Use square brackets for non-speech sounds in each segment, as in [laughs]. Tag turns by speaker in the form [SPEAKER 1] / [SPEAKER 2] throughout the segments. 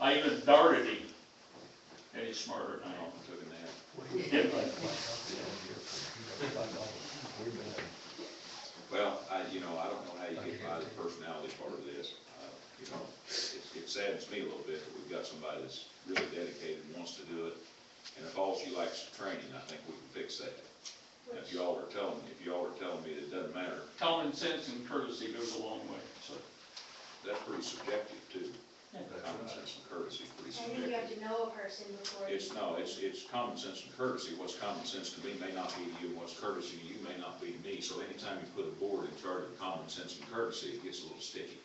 [SPEAKER 1] I even darted him, and he's smarter than I am.
[SPEAKER 2] Took a nap. Well, I, you know, I don't know how you get by the personality part of this. Uh, You know, it it saddens me a little bit that we've got somebody that's really dedicated and wants to do it. And if all she likes is training, I think we can fix that. And If y'all are telling, if y'all are telling me that it doesn't matter,
[SPEAKER 1] Common sense and courtesy goes a long way, so.
[SPEAKER 2] that's pretty subjective too.
[SPEAKER 1] Yeah.
[SPEAKER 2] Common sense and courtesy is pretty
[SPEAKER 3] I think you have
[SPEAKER 2] subjective.
[SPEAKER 3] to know a person before. you-
[SPEAKER 2] It's, no, it's, it's common sense and courtesy. What's common sense to me may not be to you, and what's courtesy to you may not be to me. So anytime you put a board in charge of common sense and courtesy, it gets a little sticky.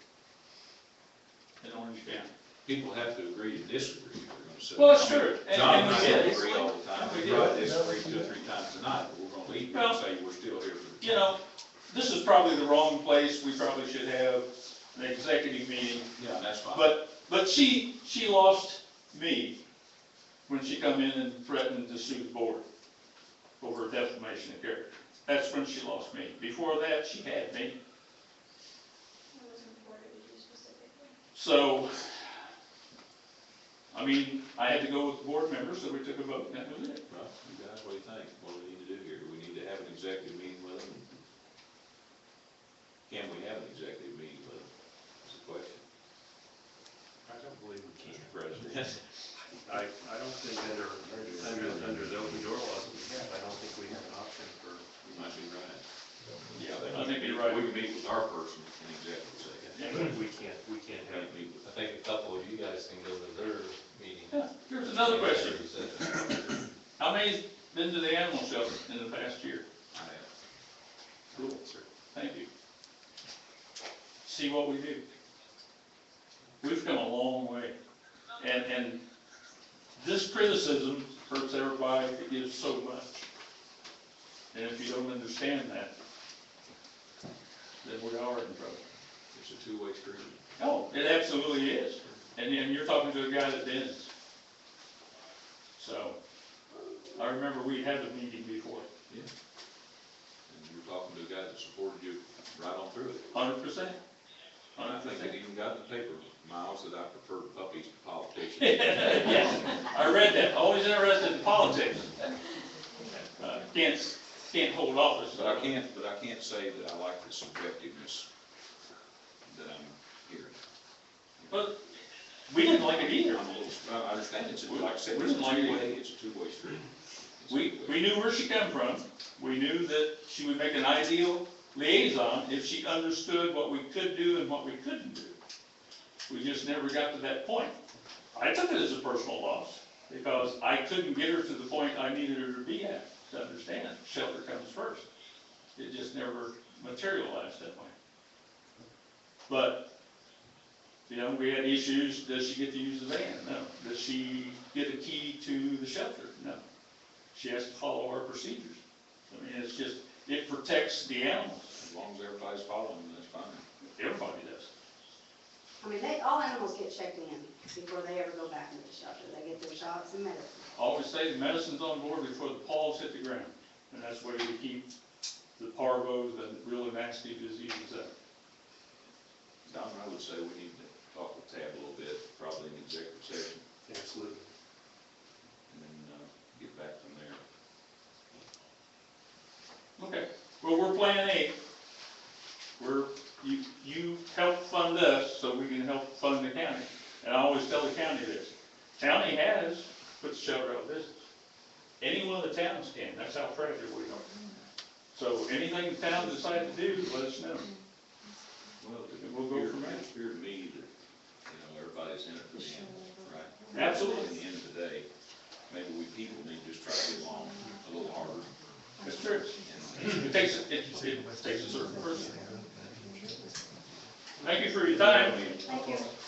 [SPEAKER 1] They don't understand.
[SPEAKER 2] People have to agree to disagree if they're gonna sit.
[SPEAKER 1] Well, that's true. And-
[SPEAKER 2] John
[SPEAKER 1] and
[SPEAKER 2] and
[SPEAKER 1] we
[SPEAKER 2] I
[SPEAKER 1] did.
[SPEAKER 2] don't agree all the time.
[SPEAKER 1] And we
[SPEAKER 2] We
[SPEAKER 1] did.
[SPEAKER 2] might disagree two or three times tonight, but we're gonna leave here and
[SPEAKER 1] Well,
[SPEAKER 2] say we're still here for the.
[SPEAKER 1] You know, this is probably the wrong place, we probably should have an executive meeting,
[SPEAKER 2] Yeah, that's fine.
[SPEAKER 1] but, but she, she lost me when she come in and threatened to sue the board over defamation of character. That's when she lost me. Before that, she had me.
[SPEAKER 3] I wasn't bored of you specifically.
[SPEAKER 1] So, I mean, I had to go with the board members, so we took a vote, and that was it.
[SPEAKER 2] Well, you guys, what do you think? What do we need to do here? Do we need to have an executive meeting with them? Can we have an executive meeting with them? That's the question,
[SPEAKER 4] I don't believe we can.
[SPEAKER 2] Mr. President.
[SPEAKER 4] I, I don't think under, under, under the open door laws that we have, I don't think we have an option for,
[SPEAKER 2] You might be right.
[SPEAKER 1] Yeah, I think you're right.
[SPEAKER 2] We can meet with our person in executive session.
[SPEAKER 1] Yeah.
[SPEAKER 4] we can't, we can't
[SPEAKER 2] We
[SPEAKER 4] have.
[SPEAKER 2] can't meet with
[SPEAKER 5] I think a couple of you guys can go to their meeting.
[SPEAKER 1] Yeah, Here's another question.
[SPEAKER 5] Is that-
[SPEAKER 1] How many's been to the animal shelter in the past year?
[SPEAKER 2] I have.
[SPEAKER 1] Cool, sir. Thank you. See what we do. We've come a long way. And, and this criticism hurts everybody that gives so much. And if you don't understand that, then we are in trouble.
[SPEAKER 2] It's a two-way street.
[SPEAKER 1] Oh, it absolutely is. And, and you're talking to a guy that bends. So, I remember we had a meeting before,
[SPEAKER 2] And you're talking to a guy that supported you right on through it.
[SPEAKER 1] hundred percent.
[SPEAKER 2] And I
[SPEAKER 1] Hundred
[SPEAKER 2] think it
[SPEAKER 1] percent. [laughs]
[SPEAKER 2] even got in the paper, Miles, that I prefer puppies to [laughs] politicians.
[SPEAKER 1] Yes, I read that, always interested in politics. Uh, Can't, can't hold office.
[SPEAKER 2] But I can't, but I can't say that I like the subjectiveness that I'm hearing.
[SPEAKER 1] But we didn't like it either.
[SPEAKER 2] I'm a little, I understand it's, a- like I said,
[SPEAKER 1] We
[SPEAKER 2] it's a
[SPEAKER 1] didn't like it.
[SPEAKER 2] two-way, it's a two-way street. It's a
[SPEAKER 1] We,
[SPEAKER 2] two-way.
[SPEAKER 1] we knew where she come from. We knew that she would make an ideal liaison if she understood what we could do and what we couldn't do. We just never got to that point. I took it as a personal loss because I couldn't get her to the point I needed her to be at to understand shelter comes first. It just never materialized that way. But, you know, we had issues. Does she get to use the van? No. Does she get a key to the shelter? No. She has to follow our procedures. I mean, it's just, it protects the animals,
[SPEAKER 2] As long as everybody's following, that's fine.
[SPEAKER 1] everybody does.
[SPEAKER 6] I mean, they, all animals get checked in before they ever go back into the shelter. They get their shots and medicine.
[SPEAKER 1] I Always say the medicine's on board before the paws hit the ground, and that's where we keep the parvos and really nasty diseases out.
[SPEAKER 2] Don, I would say we need to talk with Tab a little bit, probably in executive session,
[SPEAKER 4] Absolutely.
[SPEAKER 2] and then, uh, get back from there.
[SPEAKER 1] Okay, well, we're plan A. We're, you, you help fund us so we can help fund the county. And I always tell the county this, county has put the shelter out of business. Any one of the towns can, that's how fragile we are. So anything the town decides to do, let us know.
[SPEAKER 2] Well, it
[SPEAKER 1] We'll go
[SPEAKER 2] appeared-
[SPEAKER 1] from there.
[SPEAKER 2] It appeared to me that, you know, everybody's in it for the animal, right?
[SPEAKER 1] Absolutely.
[SPEAKER 2] At the end of the day, maybe we people need to just try to get along a little harder.
[SPEAKER 1] That's true.
[SPEAKER 2] And
[SPEAKER 1] It takes, it, it takes a certain person. Thank you for your time.
[SPEAKER 6] Thank you.
[SPEAKER 4] uh, um, uh, uh,